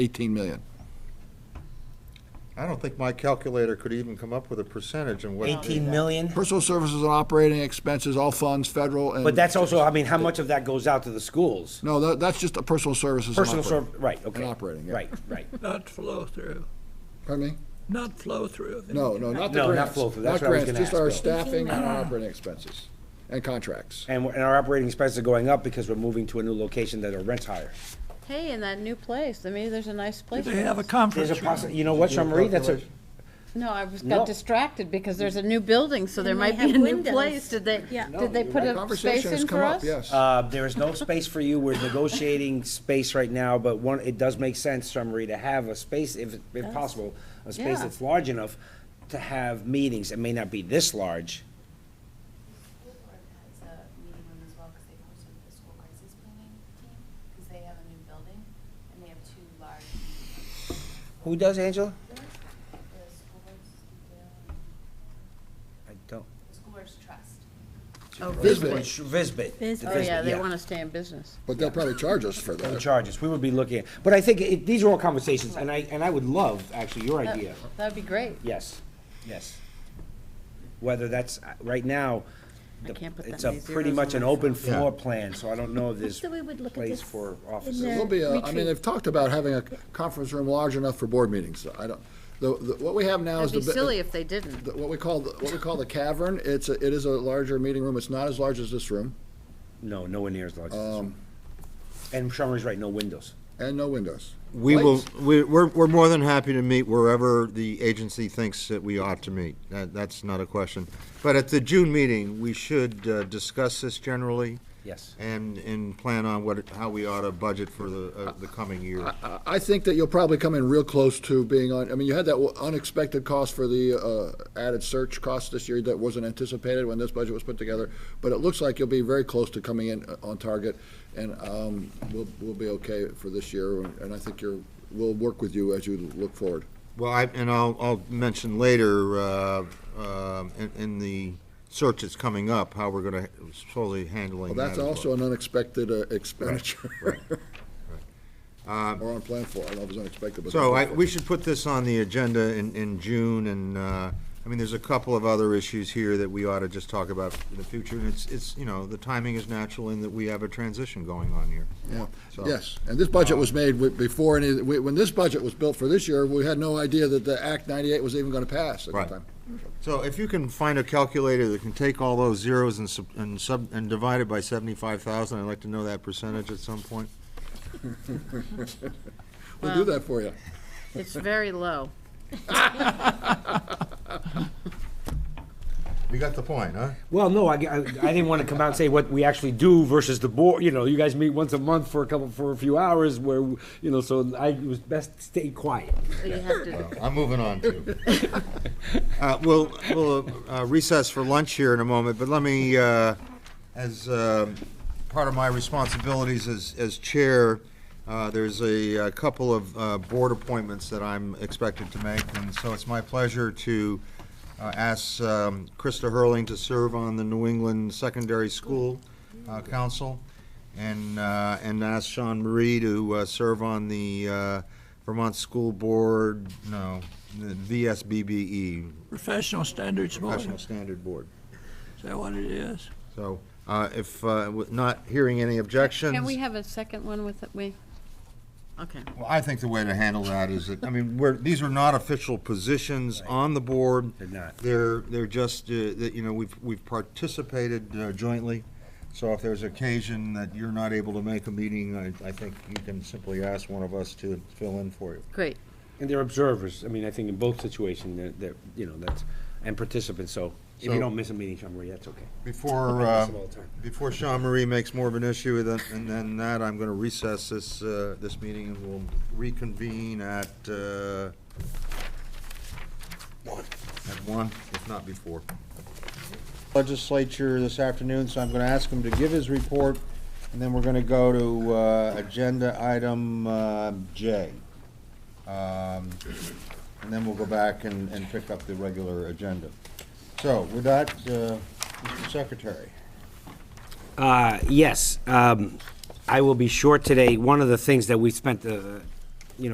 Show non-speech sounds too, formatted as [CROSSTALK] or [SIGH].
18 million. I don't think my calculator could even come up with a percentage and what. 18 million? Personal services and operating expenses, all funds, federal and. But that's also, I mean, how much of that goes out to the schools? No, that, that's just a personal services. and Personal operating. serv, right, okay. operating, yeah. Right, right. Not flow through, Pardon me? not flow through. of any No, no, not the No, not grants. flow through. That's what I was grants, gonna Just our ask, Bill. staffing and our operating expenses and contracts. And, we're- and our operating expenses are going up because we're moving to a new location that our rent's higher. Hey, in that new place, I mean, there's a nice place. They have a There's conference a room. possi, you know what, Shamri, that's a, No, I was, No. got distracted because there's a new building, so there And they might be have a new windows. place. Did they, Yeah. did they put a space Conversation has in come for up, us? yes. uh, there is no space for you. We're negotiating space right now, but one, it does make sense, Shamri, to have a space, if, if possible, a space Yeah. that's large enough to have meetings. It may not be this large. school board has a meeting room as well, because they posted the school crisis planning team, because they have a new building, and they have two large, Who does, Angela? the school board's, I don't. the school board's trust. Visbit. Visbit. the Visbit. Oh, yeah, Visbit, they want to stay in business. But they'll probably charge us for the that. charges, we would be looking at, but I think it, these are all conversations, and I, and I would love, actually, your That- idea, That'd be great. yes, yes. Whether that's, uh, right now, I the- can't put that it's a many pretty zeros much on an my open phone. Yeah. floor plan, so I don't know if there's So we would look at place this for in offices. there. It'll be, a- I mean, Retreat. they've talked about having a conference room large enough for board meetings. I don't, the, the, what we have now is That'd the. be bi- silly if they didn't. the- What we call, the- what we call the cavern, it's, a- it is a larger meeting room. It's not as large as this room No, nowhere near as large as this one. And Summer's right, no windows. and no windows. We will, Lights? we- we're, we're more than happy to meet wherever the agency thinks that we ought to meet. That, that's not a question. But at the June meeting, we should uh, discuss this generally Yes. and, and plan on what, how we ought to budget for the, uh, the coming year. I- I think that you'll probably come in real close to being on, I mean, you had that unexpected cost for the uh, added search cost this year that wasn't anticipated when this budget was put together, but it looks like you'll be very close to coming in uh, on target, and um, we'll, we'll be okay for this year, and I think you're, we'll work with you as you look forward. Well, I, and I'll, I'll mention later, uh, um, in, in the search that's coming up, how we're gonna slowly handling Well, that that's as well. also an unexpected uh, expenditure, [LAUGHS] Um, or unplanned for, I don't know if it's unexpected, but. So I, unplanned for. we should put this on the agenda in, in June, and, uh, I mean, there's a couple of other issues here that we ought to just talk about in the future, and it's, it's, you know, the timing is natural in that we have a transition going on here. Yeah, So- yes, and this budget was made wi- before any, we- when this budget was built for this year, we had no idea that the Act 98 was even going to pass at the Right. time. So if you can find a calculator that can take all those zeros and sub, and sub, and divide it by seventy-five thousand, I'd like to know that percentage at some point. We'll do that for you. It's very low. You got the point, huh? Well, no, I, I, I didn't want to come out and say what we actually do versus the board, you know, you guys meet once a month for a couple, for a few hours where, you know, so I, it was best stay quiet. You have to, [LAUGHS] I'm moving on to. Uh, We'll, we'll uh, recess for lunch here in a moment, but let me, uh, as um, part of my responsibilities as, as chair, uh, there's a uh, couple of uh, board appointments that I'm expected to make, and so it's my pleasure to uh, ask um, Krista Hurling to serve on the New England Secondary School uh, Council, and, uh, and ask Sean Marie to uh, serve on the uh, Vermont School Board, no, the VSBBE, Professional Standards Board, E, Professional is Standard Board. that what it is? So uh, if, uh, with not hearing any objections. can we have a second one with, we, okay. Well, I think the way to handle that is that, I mean, we're, these are not official positions on the board. They're not. They're, they're just, uh, that, you know, we've, we've participated uh, jointly. So if there's occasion that you're not able to make a meeting, I, I think you can simply ask one of us to fill in for you. Great. And they're observers, I mean, I think in both situations, they're, they're, you know, that's, and participants, so if you So- don't miss a meeting, Jean Marie, that's okay. Before, I uh, miss them all the time. before Sean Marie makes more of an issue than, and then that, I'm going to recess this, uh, this meeting and we'll reconvene at, uh, at one, if not before. Legislature this afternoon, so I'm going to ask him to give his report and then we're going to go to, uh, agenda item, uh, J. Um, and then we'll go back and, and pick up the regular agenda. So with that, uh, Mr. Secretary. Uh, yes, um, I will be short today. One of the things that we spent uh,